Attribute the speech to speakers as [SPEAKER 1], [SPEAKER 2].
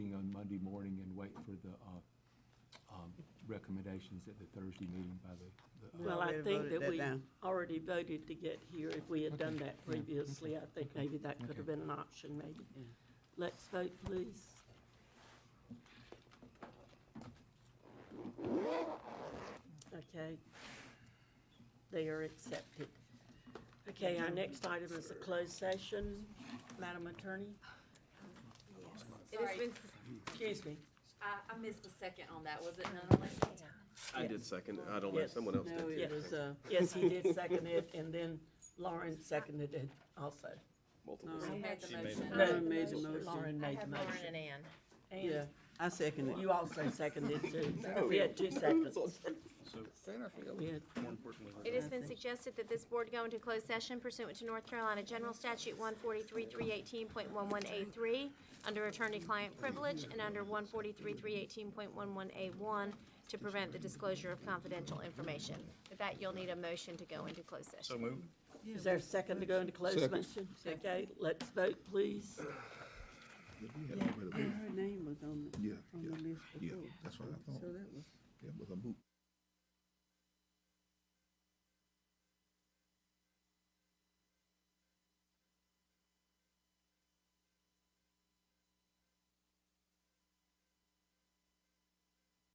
[SPEAKER 1] wait for the uh, um, recommendations at the Thursday meeting by the- the. uh,
[SPEAKER 2] Well,
[SPEAKER 3] We
[SPEAKER 2] I
[SPEAKER 3] already
[SPEAKER 2] think
[SPEAKER 3] voted
[SPEAKER 2] that
[SPEAKER 3] that
[SPEAKER 2] we
[SPEAKER 3] down.
[SPEAKER 2] already voted to get here. If we had done that previously, I think maybe that could
[SPEAKER 1] Okay.
[SPEAKER 2] have been an option, maybe.
[SPEAKER 3] Yeah.
[SPEAKER 2] Let's vote, please. Okay. They are accepted. Okay, our next item is a closed session. Madam Attorney,
[SPEAKER 4] It has been,
[SPEAKER 2] excuse me.
[SPEAKER 4] I, I missed the second on that, was it none elected?
[SPEAKER 5] I did second, it. I don't know,
[SPEAKER 2] Yes.
[SPEAKER 5] someone else
[SPEAKER 3] No,
[SPEAKER 5] did.
[SPEAKER 3] it
[SPEAKER 2] Yes.
[SPEAKER 3] was, uh,
[SPEAKER 2] Yes, he did second it, and then Lauren seconded it also.
[SPEAKER 5] Multiple.
[SPEAKER 4] Who made the motion?
[SPEAKER 2] No,
[SPEAKER 3] Lauren made the motion.
[SPEAKER 2] Lauren made the motion.
[SPEAKER 4] Ann.
[SPEAKER 2] And
[SPEAKER 3] yeah, I second it. Oh,
[SPEAKER 2] You also seconded too. We had two seconds. We had-
[SPEAKER 6] It has been suggested that this board go into closed session pursuant to North Carolina General Statute 143-318.11A3, under attorney-client privilege, and under 143-318.11A1, to prevent the disclosure of confidential information. With that, you'll need a motion to go into closed session.
[SPEAKER 2] Is there a second to go into closed session? Okay, let's vote, please.
[SPEAKER 7] Did we have a way to vote?
[SPEAKER 3] Her name was on the,
[SPEAKER 7] Yeah,
[SPEAKER 3] on the
[SPEAKER 7] yeah,
[SPEAKER 3] list
[SPEAKER 7] yeah,
[SPEAKER 3] before,
[SPEAKER 7] that's what I
[SPEAKER 3] so
[SPEAKER 7] thought.
[SPEAKER 3] that was.
[SPEAKER 7] It was a moot